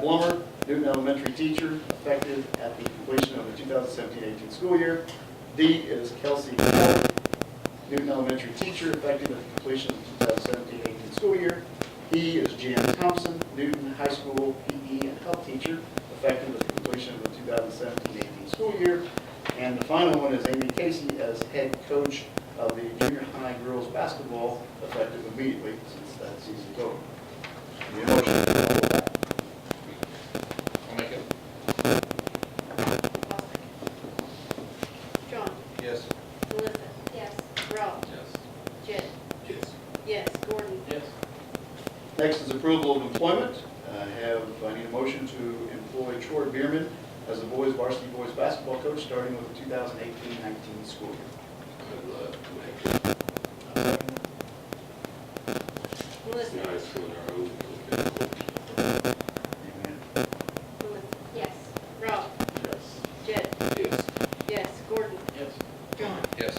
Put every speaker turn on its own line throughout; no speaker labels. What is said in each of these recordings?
Blummer, Newton Elementary teacher, effective at the completion of the 2017-18 school year. D is Kelsey Hill, Newton Elementary teacher, effective at the completion of the 2017-18 school year. E is Jan Thompson, Newton High School PE and health teacher, effective at the completion of the 2017-18 school year. And the final one is Amy Casey as head coach of the junior high girls basketball, effective immediately since that season's over. Need a motion?
I'll make it.
John,
Yes.
Melissa,
yes,
Rob,
Yes.
Jed,
Yes.
yes, Gordon,
Yes.
Next is approval of employment. I have, I need a motion to employ Troy Bierman as the boys varsity boys basketball coach, starting with the 2018-19 school year.
I'll, uh, make it.
Melissa,
Nice when our own little kid goes.
Amen.
Melissa,
yes,
Rob, Jed,
Yes.
yes, Gordon,
Yes.
John,
Yes.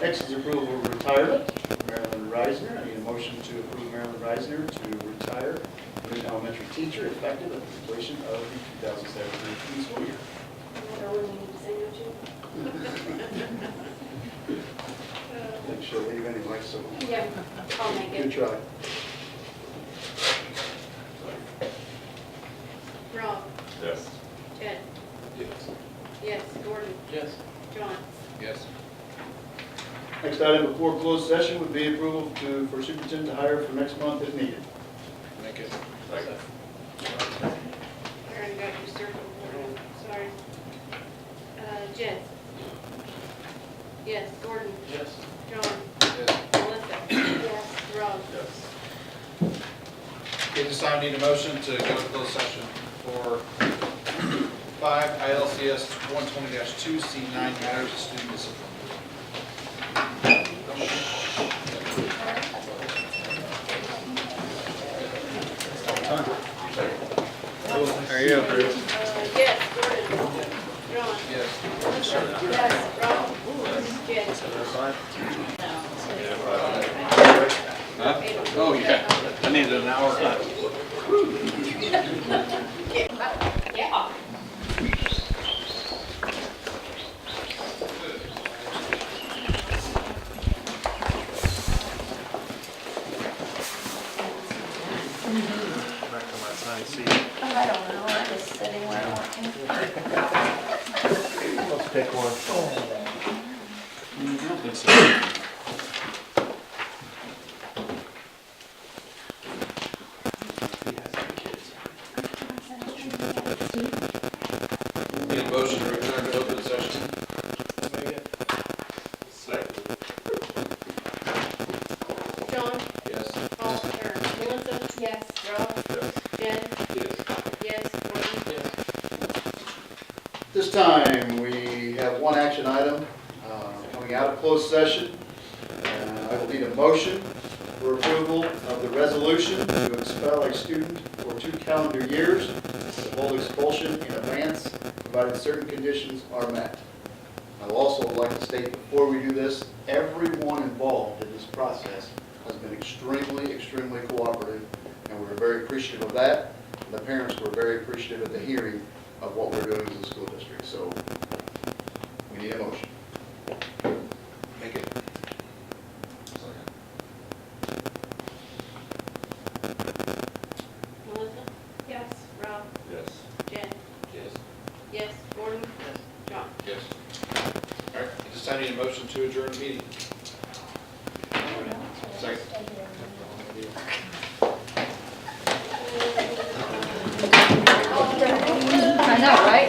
Next is approval of retirement, Marilyn Reisner. I need a motion to approve Marilyn Reisner to retire, Newton elementary teacher, effective at the completion of the 2017-18 school year.
another one we need to say no to.
Make sure leave any like so.
Yeah, I'll make
Good
it,
try.
Rob,
Yes.
Jed,
Yes.
yes, Gordon,
Yes.
John,
Yes.
Next item before closed session would be approval to, for superintendent to hire for next month if needed.
Make it.
Aaron got you circled, Gordon, sorry. Uh, Jed, yes, Gordon,
Yes.
John,
Yes.
Melissa,
yes,
Rob,
Yes. Okay, this time I need a motion to go to closed session for five ILCS one twenty two C nine matters of student discipline.
uh, yes, Gordon, John,
Yes.
Melissa, yes, Rob, Jed.
Oh, yeah, I needed an hour.
yeah.
Oh, I don't know, I was sitting where I wanted.
Need a motion to return to open session. Second.
John,
Yes.
Paul, or Melissa,
Yes.
Rob,
Yes.
Jed,
Yes.
yes, Gordon,
This time, we have one action item uh, coming out of closed session. Uh, I will need a motion for approval of the resolution to expel a student for two calendar years, the whole expulsion in advance, provided certain conditions are met. I would also like to state before we do this, everyone involved in this process has been extremely, extremely cooperative, and we're very appreciative of that. The parents were very appreciative at the hearing of what we're doing as a school district, so we need a motion.
Make it.
Melissa,
Yes.
Rob,
Yes.
Jed,
Yes.
yes, Gordon, John.
Yes. All right, at this time, I need a motion to adjourn the meeting. Second.
I know, right?